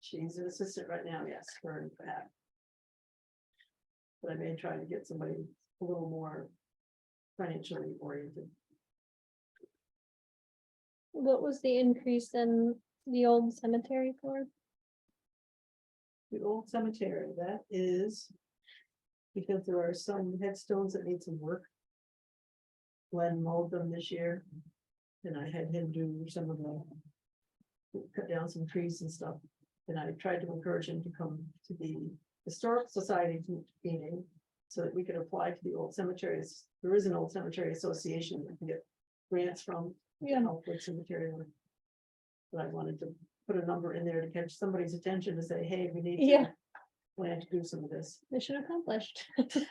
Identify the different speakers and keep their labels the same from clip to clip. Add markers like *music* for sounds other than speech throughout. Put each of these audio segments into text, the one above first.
Speaker 1: She's an assistant right now, yes, for that. But I may try to get somebody a little more financially oriented.
Speaker 2: What was the increase in the old cemetery for?
Speaker 1: The old cemetery, that is. Because there are some headstones that need some work. Glenn mowed them this year. And I had him do some of the. Cut down some trees and stuff. And I tried to encourage him to come to the Historic Society meeting. So that we could apply to the old cemeteries. There is an old cemetery association that can get grants from to
Speaker 2: Yeah.
Speaker 1: help with some material. But I wanted to put a number in there to catch somebody's attention to say, hey, we need. to
Speaker 2: Yeah.
Speaker 1: Plan to do some of this.
Speaker 2: Mission accomplished. *laughs*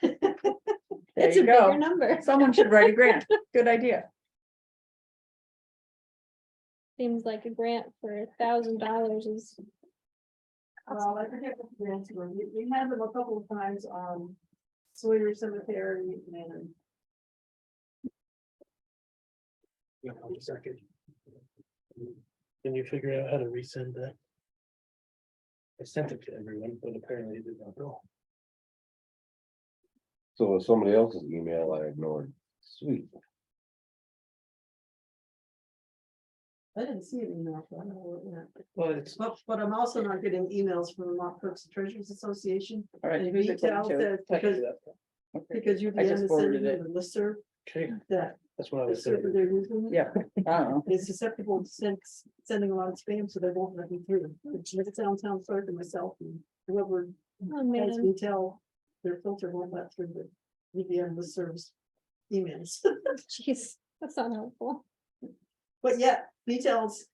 Speaker 3: There
Speaker 2: It's a
Speaker 3: you
Speaker 2: bigger
Speaker 3: go.
Speaker 2: number.
Speaker 3: Someone should write a *laughs* grant. Good idea.
Speaker 2: Seems like a grant for a thousand dollars is,
Speaker 1: Well, I forget what the grants were. We, we had them a couple of times on Sawyer Cemetery and
Speaker 4: Yeah, I'll just second. Can you figure out how to resend that? I sent it to everyone, but apparently it did not go.
Speaker 5: So it's somebody else's email I ignored, sweet.
Speaker 1: I didn't see an email. so I don't know where it went.
Speaker 4: Well, it's,
Speaker 1: But, but I'm also not getting emails from the Mont Cooks Treasures Association
Speaker 3: All right.
Speaker 1: And
Speaker 3: who's it going
Speaker 1: retail says
Speaker 3: to? Tell
Speaker 1: because-
Speaker 3: you that. Okay.
Speaker 1: because you're the
Speaker 3: I just forwarded
Speaker 1: sending them a listserv
Speaker 4: okay,
Speaker 1: that
Speaker 4: that's what I was
Speaker 1: is
Speaker 4: saying.
Speaker 1: they're using.
Speaker 3: Yeah, I don't know.
Speaker 1: It's susceptible to send, sending a lot of spam, so they won't let me through. Which makes it sound sounds sorry to myself and whoever
Speaker 2: oh
Speaker 1: has
Speaker 2: man,
Speaker 1: me tell their filter won't let through the VPN that serves emails. *laughs*
Speaker 2: jeez, that's not helpful.
Speaker 1: But yet, details.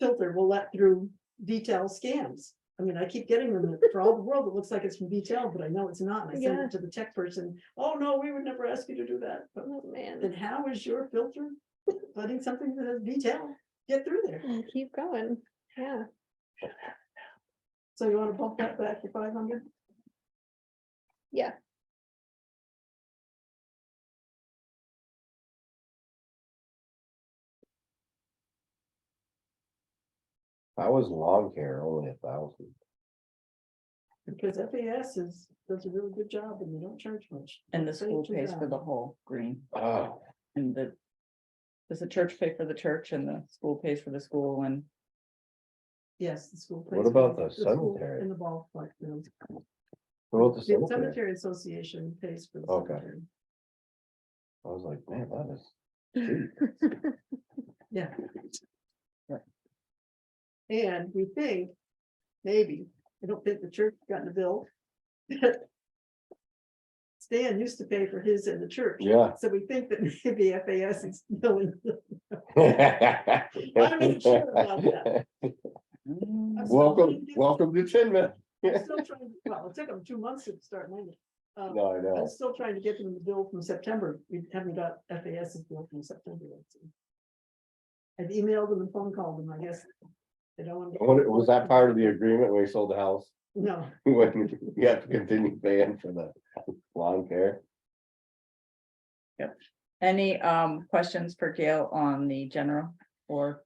Speaker 1: Filter will let through detail scams. I mean, I keep getting them *laughs* for all the world. It looks like it's from detail, but I know it's not. and I send
Speaker 2: Yeah.
Speaker 1: it to the tech person. Oh, no, we would never ask you to do that. But
Speaker 2: Oh
Speaker 1: then
Speaker 2: man,
Speaker 1: how is your filter *laughs* letting something that has detail get through there?
Speaker 2: Oh, keep going, yeah.
Speaker 1: So you wanna bump that back to five hundred?
Speaker 2: Yeah.
Speaker 5: I was in lawn care, only a thousand.
Speaker 1: Because FAS is, does a really good job and they don't charge much.
Speaker 3: *laughs* And the
Speaker 1: They
Speaker 3: school
Speaker 1: do
Speaker 3: pays for
Speaker 1: that.
Speaker 3: the whole green
Speaker 5: Oh,
Speaker 3: and the. Does the church pay for the church and the school pays for the school and
Speaker 1: Yes, the school.
Speaker 5: What
Speaker 1: pays for
Speaker 5: about the
Speaker 1: school
Speaker 5: cemetery?
Speaker 1: And the ball like the
Speaker 5: wrote the
Speaker 1: the
Speaker 5: cemetery.
Speaker 1: cemetery association pays for the
Speaker 5: Okay.
Speaker 1: cemetery.
Speaker 5: I was like, man, that
Speaker 1: *laughs*
Speaker 5: is,
Speaker 1: Yeah.
Speaker 3: Right.
Speaker 1: And we think, maybe, I don't think the church got a bill. *laughs* Stan used to pay for his in the church.
Speaker 5: yeah.
Speaker 1: So we think that maybe FAS is *laughs* billing. even sure about
Speaker 5: *laughs*
Speaker 1: that.
Speaker 5: Welcome,
Speaker 3: Mm,
Speaker 1: I'm
Speaker 5: welcome to Chinman.
Speaker 1: I'm still trying to- Well, it took them two months to start landing. Um,
Speaker 5: No, I
Speaker 1: I'm
Speaker 5: know.
Speaker 1: still trying to get them the bill from September. We haven't got FAS's bill from September. yet, so. I've emailed them and phone called them, I guess. They don't want.
Speaker 5: I wonder, was that part of the agreement when we sold the house? *laughs*
Speaker 1: No,
Speaker 5: When you have to continue paying for the lawn care?
Speaker 3: Any um questions for Gail on the general or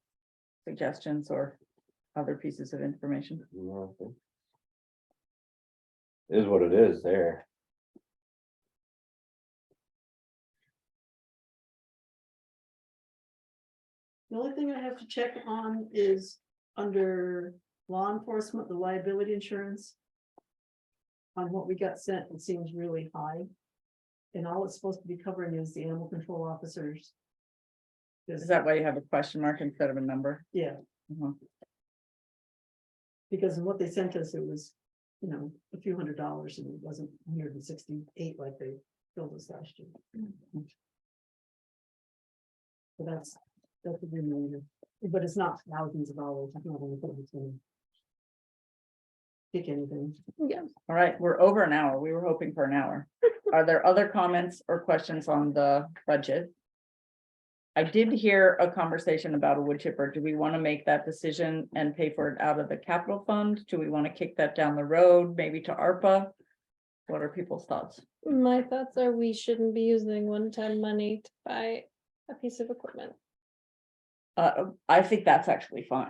Speaker 3: suggestions or other pieces of information?
Speaker 5: No, I think- Is what it is there.
Speaker 1: the only thing I have to check on is under law enforcement, the liability insurance. On what we got sent, it seems really high. And all it's supposed to be covering is the animal control officers.
Speaker 3: Is that why you have a question mark instead of a number?
Speaker 1: Yeah.
Speaker 3: Mhm.
Speaker 1: Because of what they sent us, it was, you know, a few hundred dollars and it wasn't hundred and sixty-eight like they billed us last year. So that's, that's a reminder, but it's not thousands of dollars. I don't know if it's gonna Pick anything.
Speaker 2: Yeah,
Speaker 3: All right, we're over an hour. We were hoping for an hour. Are there other comments or questions on the budget? I did hear a conversation about a wood chipper. Do we want to make that decision and pay for it out of the capital fund? Do we want to kick that down the road, maybe to ARPA? What are people's thoughts?
Speaker 2: my thoughts are we shouldn't be using one-time money to buy a piece of equipment.
Speaker 3: Uh, I think that's actually fine.